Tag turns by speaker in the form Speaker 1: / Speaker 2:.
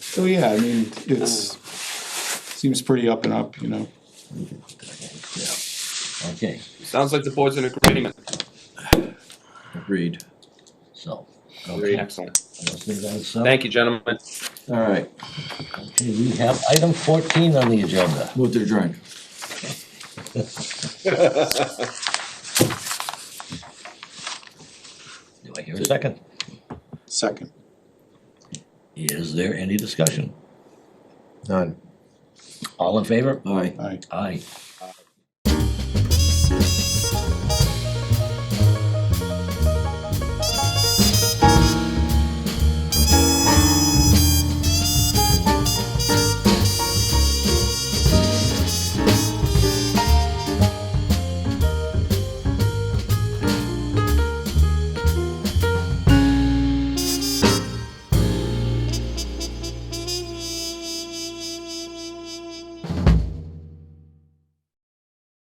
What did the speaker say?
Speaker 1: So, yeah, I mean, it's, seems pretty up and up, you know.
Speaker 2: Yeah. Okay,
Speaker 3: Sounds like the board's in agreement.
Speaker 2: agreed. So.
Speaker 3: Great,
Speaker 2: okay.
Speaker 3: excellent.
Speaker 2: Let's leave that aside.
Speaker 3: Thank you, gentlemen.
Speaker 4: All right,
Speaker 2: Okay, We have item fourteen on the agenda.
Speaker 4: move to adjourn.
Speaker 2: Do I hear a second?
Speaker 1: Second.
Speaker 2: Is there any discussion?
Speaker 5: None.
Speaker 2: All in favor?
Speaker 4: Aye.
Speaker 1: Aye.
Speaker 2: Aye.